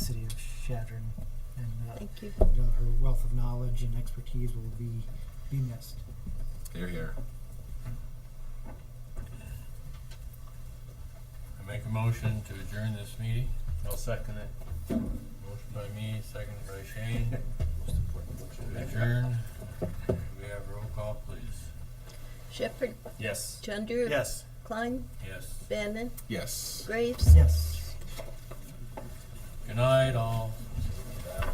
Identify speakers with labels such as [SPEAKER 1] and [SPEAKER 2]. [SPEAKER 1] Shadron, and uh,
[SPEAKER 2] Thank you.
[SPEAKER 1] you know, her wealth of knowledge and expertise will be be missed.
[SPEAKER 3] They're here.
[SPEAKER 4] I make a motion to adjourn this meeting. I'll second it. Motion by me, second by Shane. To adjourn. We have roll call, please.
[SPEAKER 2] Shepherd,
[SPEAKER 5] Yes.
[SPEAKER 2] Chandru.
[SPEAKER 5] Yes.
[SPEAKER 2] Klein,
[SPEAKER 4] Yes.
[SPEAKER 2] Bannon,
[SPEAKER 3] Yes.
[SPEAKER 2] Graves.
[SPEAKER 1] Yes.
[SPEAKER 4] Good night, all.